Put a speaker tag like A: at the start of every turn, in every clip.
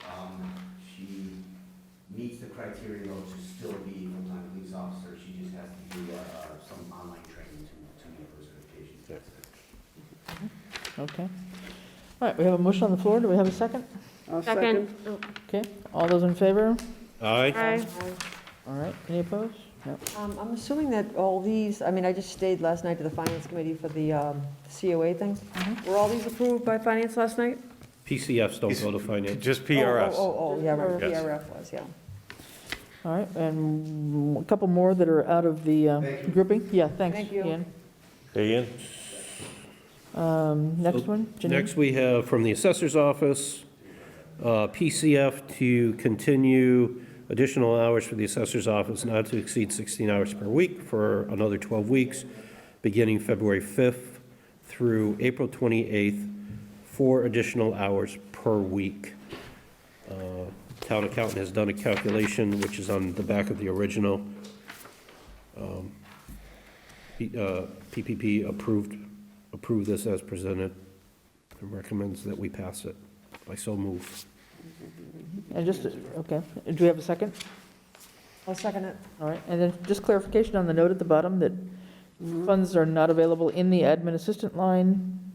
A: Um, criteria though to still be a full-time police officer, she just has to do, uh, some online training to, to get her certification.
B: Yep.
C: Okay. All right, we have a motion on the floor. Do we have a second?
D: I'll
E: Second. Oh,
C: Okay, all those in favor?
B: Aye.
E: Aye.
C: All right, any opposed? No.
F: Um, I'm assuming that all these, I mean, I just stayed last night to the Finance Committee for the um, COA thing.
D: Mm-hmm.
F: Were all these approved by Finance last night?
B: PCFs don't go to finance.
G: Just
F: Oh, oh,
G: PRFs.
F: Oh, oh, yeah, right,
B: Yes.
F: PRF was, yeah.
C: All right, and a couple more that are out of the uh,
A: Thank you.
C: grouping? Yeah, thanks,
F: Thank you.
C: Ian.
B: Ian?
C: Um, Next one, Janine?
B: Next, we have from the assessor's office, uh, PCF to continue additional hours for the assessor's office not to exceed 16 hours per week for another 12 weeks, beginning February 5th through April 28th, four additional hours per week. Uh, Town accountant has done a calculation, which is on the back of the original um, P- uh, PPP approved, approved this as presented and recommends that we pass it. I so move.
C: And just, okay, do we have a second?
F: I'll second it.
C: All right, and then just clarification on the note at the bottom that funds are not available in the admin assistant line.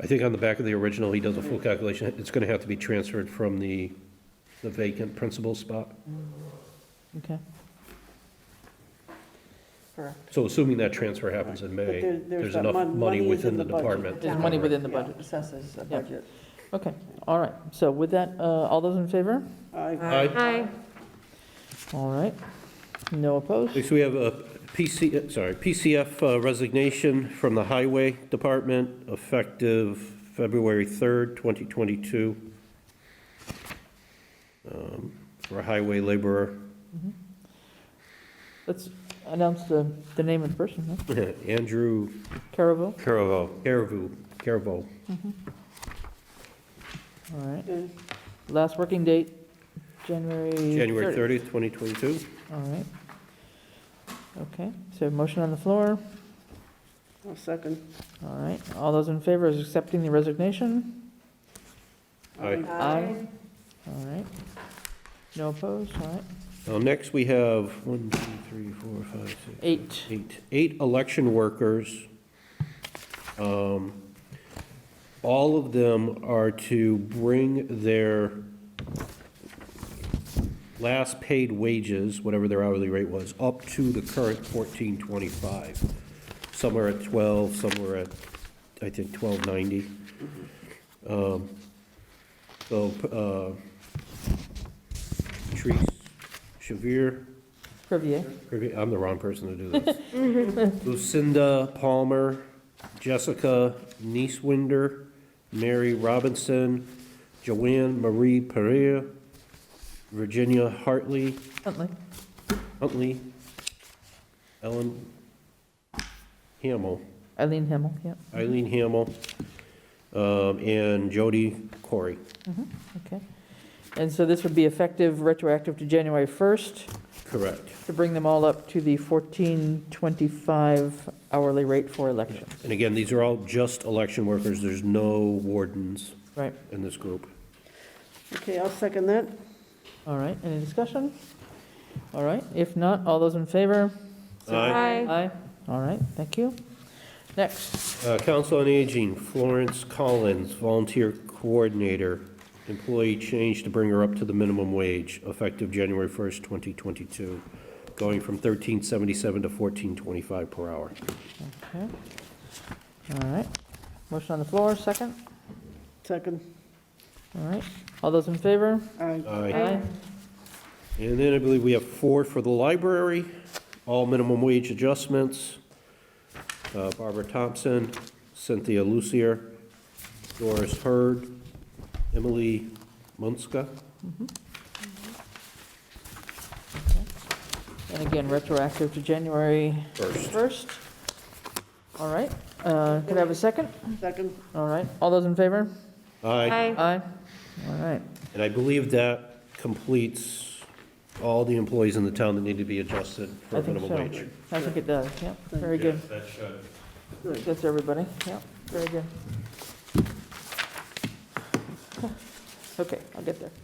B: I think on the back of the original, he does a full calculation. It's going to have to be transferred from the the vacant principal spot.
C: Okay,
F: Correct.
B: So assuming that transfer happens in
D: But there-
B: May,
D: there's
B: there's
D: that
B: enough
D: mon-
B: money
D: money is
B: within
D: in
B: the
D: the budget.
B: department.
C: there's money within the
F: Yeah,
C: budget.
F: Assesses the
C: Yeah.
F: budget.
C: Okay, all right, so with that, uh, all those in favor?
D: Aye.
B: Aye.
E: Aye.
C: All right, no opposed?
B: Next, we have a PC, sorry, PCF uh, resignation from the Highway Department effective February 3rd, 2022. um, For a highway laborer,
C: Let's announce the, the name and person, huh?
B: Andrew
C: Caraville,
G: Caravo.
B: Caravu, Caravo.
C: all right.
D: Yes.
C: Last working date, January 30th.
B: January 30th, 2022.
C: All right. Okay, so motion on the floor.
D: I'll second.
C: All right, all those in favor is accepting the resignation?
B: Aye.
C: Aye. All right. No opposed, all right.
B: Now, next, we have one, two, three, four, five, six. seven,
C: Eight.
B: Eight, eight election workers. Um, All of them are to bring their last paid wages, whatever their hourly rate was, up to the current 1425. Some are at 12, some are at, I think, 1290. Um, So, uh, Patrice Shavir,
C: Crevier,
B: I'm the wrong person to do this. Lucinda Palmer, Jessica Neeswinder, Mary Robinson, Joanne Marie Pereira, Virginia Hartley,
C: Huntley,
B: Huntley, Ellen Hamel,
C: Eileen Himmel, yep,
B: Eileen Hamel, um, and Jody Corey.
C: okay. And so this would be effective retroactive to January 1st
B: Correct.
C: to bring them all up to the 1425 hourly rate for elections.
B: And again, these are all just election workers. There's no wardens
C: Right,
B: in this group.
D: Okay, I'll second that.
C: all right, any discussion? All right, if not, all those in favor? Aye. All right, thank you. Next,
B: Uh, Council on Aging, Florence Collins, Volunteer Coordinator, employee change to bring her up to the minimum wage, effective January 1st, 2022, going from 1377 to 1425 per hour.
C: okay. All right, motion on the floor, second,
D: Second.
C: all right. All those in favor?
D: Aye.
B: Aye.
E: Aye.
B: And then I believe we have four for the library, all minimum wage adjustments. Uh, Barbara Thompson, Cynthia Lucier, Doris Hurd, Emily Munska.
C: And again, retroactive to January
B: First.
C: 1st. All right, uh, could I have a second?
D: Second.
C: All right, all those in favor?
B: Aye.
C: Aye. All right,
B: And I believe that completes all the employees in the town that need to be adjusted for
C: I think so.
B: minimum wage.
C: I think it does, yep, very good.
B: That should.
C: That's everybody, yep, very good. Okay, I'll get there.